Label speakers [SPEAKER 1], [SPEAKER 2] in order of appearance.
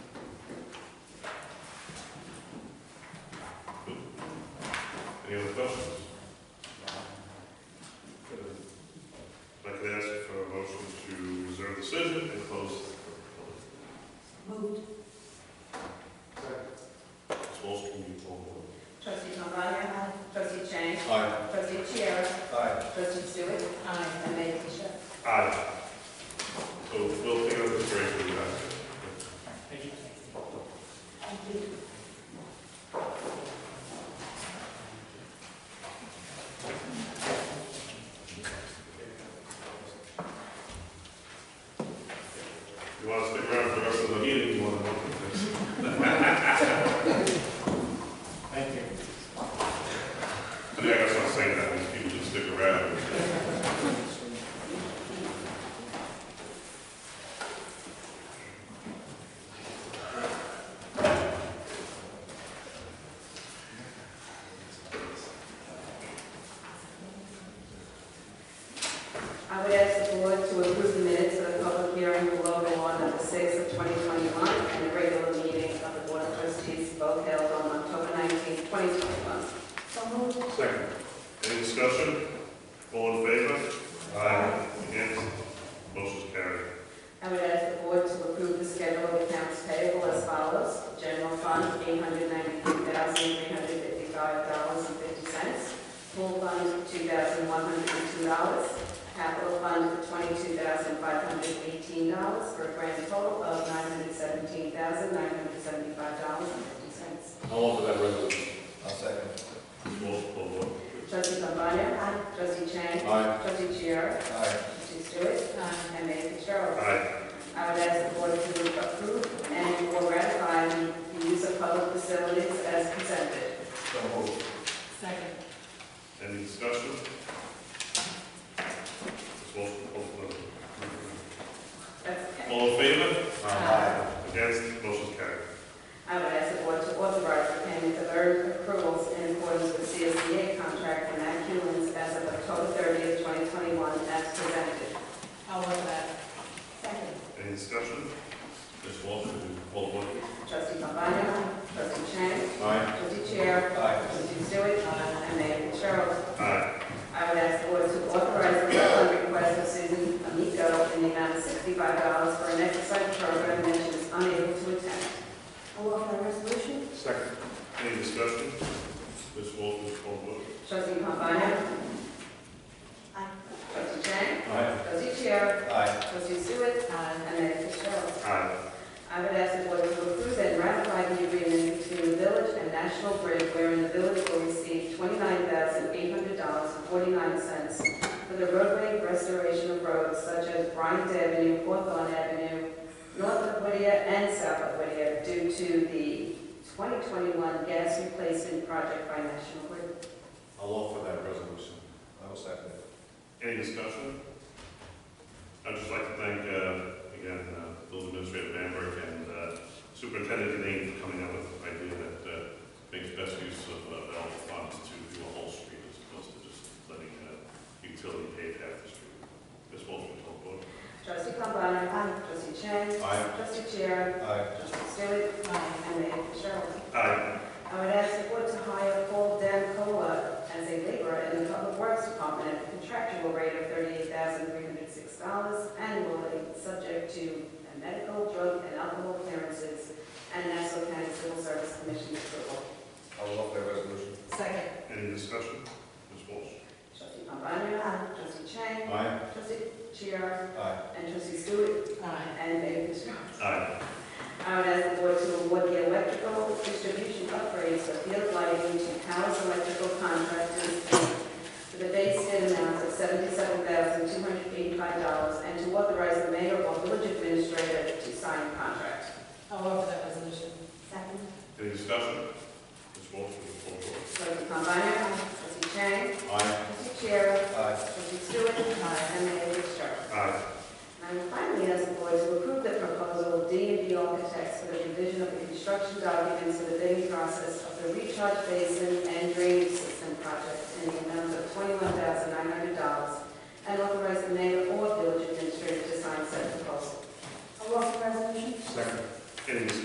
[SPEAKER 1] Any other questions? If I could ask for a motion to reserve the decision and close the
[SPEAKER 2] Moved.
[SPEAKER 1] public. Ms. Walsh, can you poll the board?
[SPEAKER 2] Trustee Cambani, aye. Trustee Chang.
[SPEAKER 3] Aye.
[SPEAKER 2] Trustee Chiara.
[SPEAKER 3] Aye.
[SPEAKER 2] Trustee Stewart. Aye. And Mayor Bishop.
[SPEAKER 1] Aye. So we'll take out the break, we'll be back.
[SPEAKER 2] Thank you.
[SPEAKER 1] You want to stick around for the rest of the meeting, you want to welcome this.
[SPEAKER 3] Thank you.
[SPEAKER 1] I think I got something saying that, these people should stick around.
[SPEAKER 2] I would ask the board to approve the minutes of the public hearing below the law number six of 2021 and the regular meeting of the Board of Trustees, both held on October 19, 2021. So moved.
[SPEAKER 1] Second. Any discussion? All in favor? Aye. Against? Motion's carried.
[SPEAKER 2] I would ask the board to approve the schedule of accounts payable as follows. General fund, $893,355.50. Pool fund, $2,102. Capital fund, $22,518, for a grand total of $917,975.50.
[SPEAKER 3] I'll offer that resolution. I'll second.
[SPEAKER 1] Roll call vote.
[SPEAKER 2] Trustee Cambani? Trustee Chang?
[SPEAKER 3] Aye.
[SPEAKER 2] Trustee Chiara?
[SPEAKER 3] Aye.
[SPEAKER 2] Trustee Stewart? And Mayor Fitzgerald.
[SPEAKER 1] Aye.
[SPEAKER 2] I would ask the board to approve and or ratify the use of public facilities as presented.
[SPEAKER 3] So moved.
[SPEAKER 2] Second.
[SPEAKER 1] Any discussion? Ms. Walsh, roll call vote. All in favor?
[SPEAKER 2] Aye.
[SPEAKER 1] Against? Motion's carried.
[SPEAKER 2] I would ask the board to authorize the payment of earned accruals in accordance with CSEA contract and accumulants as of October 30th, 2021, as presented. I'll work that. Second.
[SPEAKER 1] Any discussion? Ms. Walsh, will you poll the board?
[SPEAKER 2] Trustee Pambana? Trustee Chang?
[SPEAKER 3] Aye.
[SPEAKER 2] Trustee Chair?
[SPEAKER 3] Aye.
[SPEAKER 2] Trustee Stewart? And Mayor Cheryl.
[SPEAKER 1] Aye.
[SPEAKER 2] I would ask the board to authorize the refund request of Susan Amico in the amount of sixty-five dollars for an exercise program that she was unable to attend. I'll offer the resolution.
[SPEAKER 1] Second. Any discussion? Ms. Walsh, will you poll the board?
[SPEAKER 2] Trustee Pombana? Aye. Trustee Chang?
[SPEAKER 3] Aye.
[SPEAKER 2] Trustee Chair?
[SPEAKER 3] Aye.
[SPEAKER 2] Trustee Stewart? Aye. And Mayor Fitzgerald.
[SPEAKER 1] Aye.
[SPEAKER 2] I would ask the board to approve and ratify the agreement between the village and National Grid wherein the village will receive twenty-nine thousand eight hundred dollars and forty-nine cents for the roadway restoration of roads such as Bryant Avenue, Hawthorne Avenue, north of Whittier and south of Whittier due to the twenty twenty-one gas replacement project by National Grid.
[SPEAKER 3] I'll offer that resolution. I will second it.
[SPEAKER 1] Any discussion? I'd just like to thank, uh, again, uh, Building Administrator Bamberg and uh, Superintendent Deneen for coming up with an idea that uh, makes best use of uh, available funds to do a whole street as opposed to just letting uh, utility pave half the street. Ms. Walsh, will you call the vote?
[SPEAKER 2] Trustee Cambani? Aye. Trustee Chang?
[SPEAKER 3] Aye.
[SPEAKER 2] Trustee Chair?
[SPEAKER 3] Aye.
[SPEAKER 2] Trustee Stewart? Aye. And Mayor Fitzgerald.
[SPEAKER 1] Aye.
[SPEAKER 2] I would ask the board to hire Paul Dan Cola as a laborer in the Public Works Department at a contractual rate of thirty-eight thousand three hundred six dollars annually, subject to medical, drug, and alcohol clearances and Nassau County Civil Service Commission approval.
[SPEAKER 3] I will offer that resolution.
[SPEAKER 2] Second.
[SPEAKER 1] Any discussion? Ms. Walsh?
[SPEAKER 2] Trustee Pambana? Aye. Trustee Chang?
[SPEAKER 3] Aye.
[SPEAKER 2] Trustee Chiara?
[SPEAKER 3] Aye.
[SPEAKER 2] And Trustee Stewart? Aye. And Mayor Fitzgerald.
[SPEAKER 1] Aye.
[SPEAKER 2] I would ask the board to award the electrical distribution upgrades of field lighting to Powers Electrical Contractors for the base bid amount of seventy-seven thousand two hundred eighty-five dollars and to authorize the mayor or village administrator to sign the contract.
[SPEAKER 4] I'll offer that resolution.
[SPEAKER 2] Second.
[SPEAKER 1] Any discussion? Ms. Walsh, will you call the vote?
[SPEAKER 2] Trustee Cambani? Trustee Chang?
[SPEAKER 3] Aye.
[SPEAKER 2] Trustee Chair?
[SPEAKER 3] Aye.
[SPEAKER 2] Trustee Stewart? And Mayor Fitzgerald.
[SPEAKER 1] Aye.
[SPEAKER 2] And I would finally ask the board to approve the proposal of D and B Architects for the revision of the construction documents for the bidding process of the recharge basin and drainage system project in the amount of twenty-one thousand nine hundred dollars and authorize the mayor or village administrator to sign said proposal.
[SPEAKER 4] I'll offer the resolution.
[SPEAKER 3] Second.
[SPEAKER 1] Any discussion?